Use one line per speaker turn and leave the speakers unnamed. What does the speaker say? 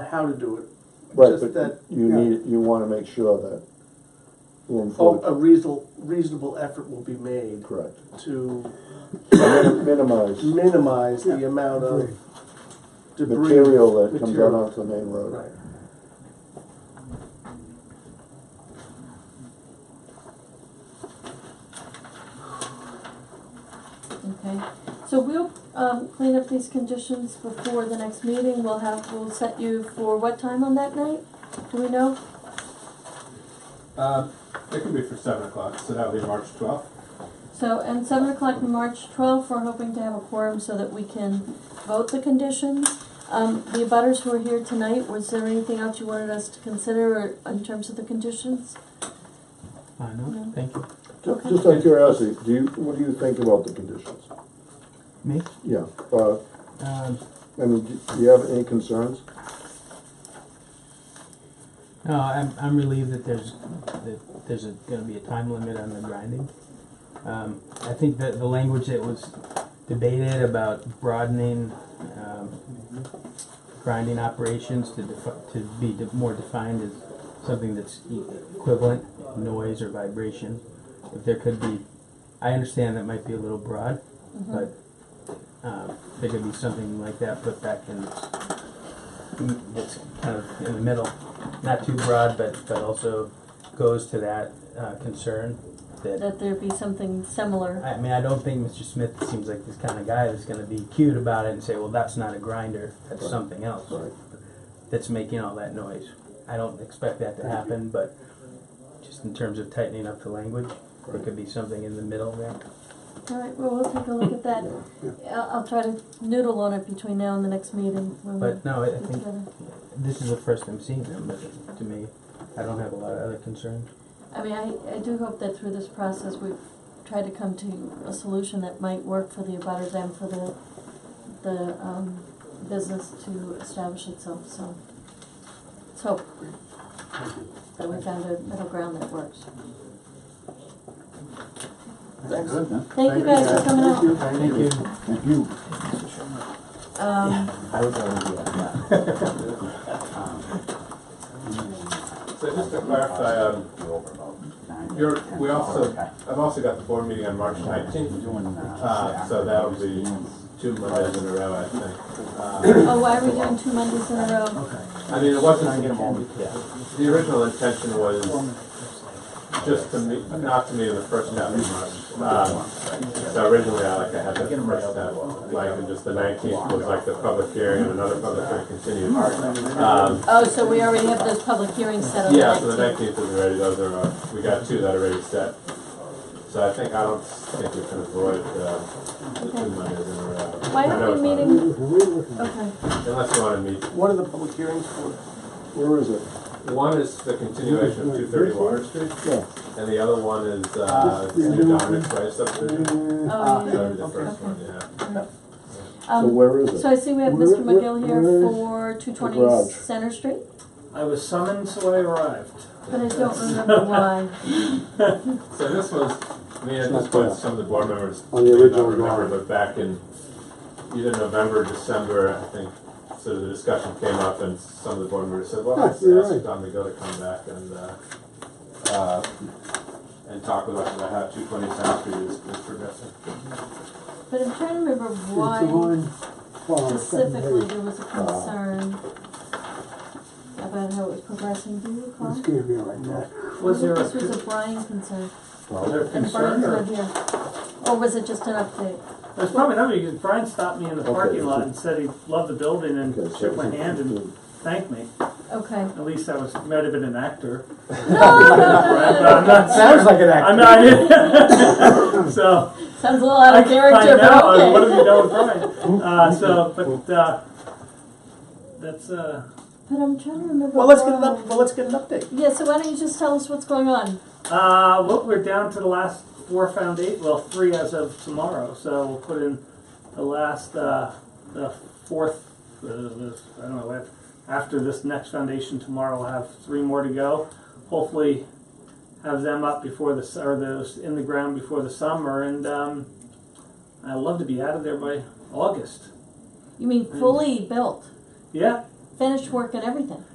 how to do it.
Right,
Just that,
but you
yeah.
need, you wanna make sure that in
Oh,
full,
a reasonable, reasonable effort will be made
correct,
to
minimize
minimize the amount of
Agreed.
debris.
material that comes out
material.
onto the main road.
Right.
Okay, so we'll, um, clean up these conditions before the next meeting, we'll have, we'll set you for what time on that night? Do we know?
Uh, it can be for seven o'clock, so that'll be March twelfth.
So, and seven o'clock on March twelfth, we're hoping to have a quorum so that we can vote the conditions. Um, the abutters who are here tonight, was there anything else you wanted us to consider or in terms of the conditions?
I
No.
know, thank you.
Ju- Just out of curiosity, do you, what do you think about the conditions?
Me?
Yeah, uh,
Um,
I mean, do do you have any concerns?
no, I'm, I'm relieved that there's, that there's a, gonna be a time limit on the grinding. Um, I think that the language that was debated about broadening, um, grinding operations to defi- to be de- more defined as something that's e- equivalent, noise or vibration. If there could be, I understand that might be a little broad, but um, there could be something like that put back in mm, that's kind of in the middle, not too broad, but but also goes to that uh, concern that.
That there be something similar,
I mean, I don't think Mr. Smith seems like this kind of guy that's going to be cute about it and say, "Well, that's not a grinder. That's
Right.
something else."
Right.
that's making all that noise. I don't expect that to happen, but just in terms of tightening up the language, there could be something in the middle there.
alright, well, we'll take a look at that. I'll, I'll try to noodle on it between now and the next meeting when we
But no, I I
get
think
together.
this is the first I'm seeing them, but to me, I don't have a lot of other concerns.
I mean, I, I do hope that through this process, we've tried to come to a solution that might work for the abutters and for the, the, um, business to establish itself, so. Let's hope that we found a middle ground that works.
Thanks.
Thank you guys for coming out.
Thank you.
Thank you.
Um,
I was already doing that.
So just to clarify, um, you're, we also, I've also got the board meeting on March nineteenth, uh, so that'll be two Mondays in a row, I think. Uh,
oh, why are we doing two Mondays in a row?
I mean, it wasn't, the original intention was just to meet, not to meet in the first half of March. Um, So originally, I like, I had the first step, like, and just the nineteenth was like the public hearing, and another public hearing continued. Um,
Oh, so we already have those public hearings set on the
yeah, so the
nineteenth.
nineteenth is already, those are, uh, we got two that are already set. So I think, I don't think we can avoid, uh, the two Mondays in a row.
Why
uh, I
aren't
know it's
we
not-
meeting? Okay,
Unless you wanna meet,
What are the public hearings for?
Where is it?
one is the continuation of two thirty Water Street,
Yeah,
and the other one is, uh,
This is
the
the new
Dominic Price subdivision.
Uh,
oh, yeah,
That'll be
yeah,
the first
okay.
one, yeah.
so
Um,
where is it?
So I see we have
Where-
Mr.
where-
McGill here
where is
for two twenty
garage?
Center Street,
I was summoned, so I arrived.
but I don't remember why.
So this was, I mean, at
not
this point,
bad.
some of the board members.
On the
may not
original
remember,
drawing.
But back in either November, December, I think, sort of the discussion came up and some of the board members said, well,
Ah,
let's
you're
ask
right.
Don McGill to come back and, uh, uh, and talk with us about how two twenty South Street is is progressing.
But I'm trying to remember why specifically there was a
Ah.
concern about how it was progressing. Do you recall?
Was there
This was
a,
a Brian concern.
Well, they're
And
concern
Brian's
or-
not here. Or was it just an update?
there's probably nothing, because Brian stopped me in the
Okay,
parking lot
okay.
and said he loved the building
Okay,
and
so
shook my
it's-
hand and thanked me.
Okay.
At least I was, might have been an actor.
No, no, no,
But
no,
I'm not,
Sounds like an
I'm not, so.
no. Sounds a little out
I
of Oh, character,
I know,
but
I mean, what
okay.
have you done with Brian? Uh, so, but, uh, that's, uh,
But I'm trying to remember
well, let's get an
why.
up, well, let's get an update.
Yeah, so why don't you just tell us what's going on?
Uh, well, we're down to the last four foundation, well, three as of tomorrow, so we'll put in the last, uh, the fourth, uh, this, I don't know, af- after this next foundation tomorrow, we'll have three more to go. Hopefully have them up before the, s- or those in the ground before the summer, and, um, I'd love to be out of there by August.
You mean fully built?
Yeah,
finished work and everything.